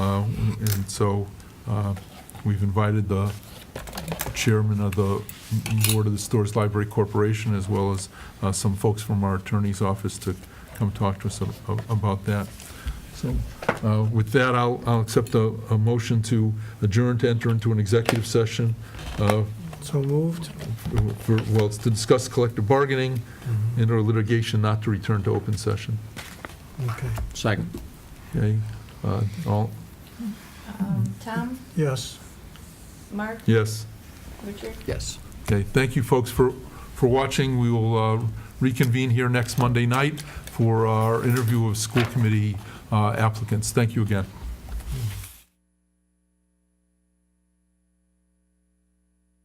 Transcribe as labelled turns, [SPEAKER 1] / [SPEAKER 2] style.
[SPEAKER 1] Uh, And so uh, we've invited the chairman of the board of the Stores Library Corporation, as well as uh, some folks from our attorney's office to come talk to us a- a- about that. So uh, with that, I'll, I'll accept a, a motion to adjourn to enter into an executive session uh,
[SPEAKER 2] So moved.
[SPEAKER 1] for, well, it's to discuss collective bargaining and or litigation not to return to open session.
[SPEAKER 2] Okay,
[SPEAKER 3] Second.
[SPEAKER 1] Okay? Uh, All,
[SPEAKER 4] Um, Tom,
[SPEAKER 2] yes.
[SPEAKER 4] Mark,
[SPEAKER 1] yes?
[SPEAKER 4] Richard?
[SPEAKER 3] Yes.
[SPEAKER 1] Okay, thank you, folks, for, for watching. We will uh, reconvene here next Monday night for our interview of school committee uh, applicants. Thank you again.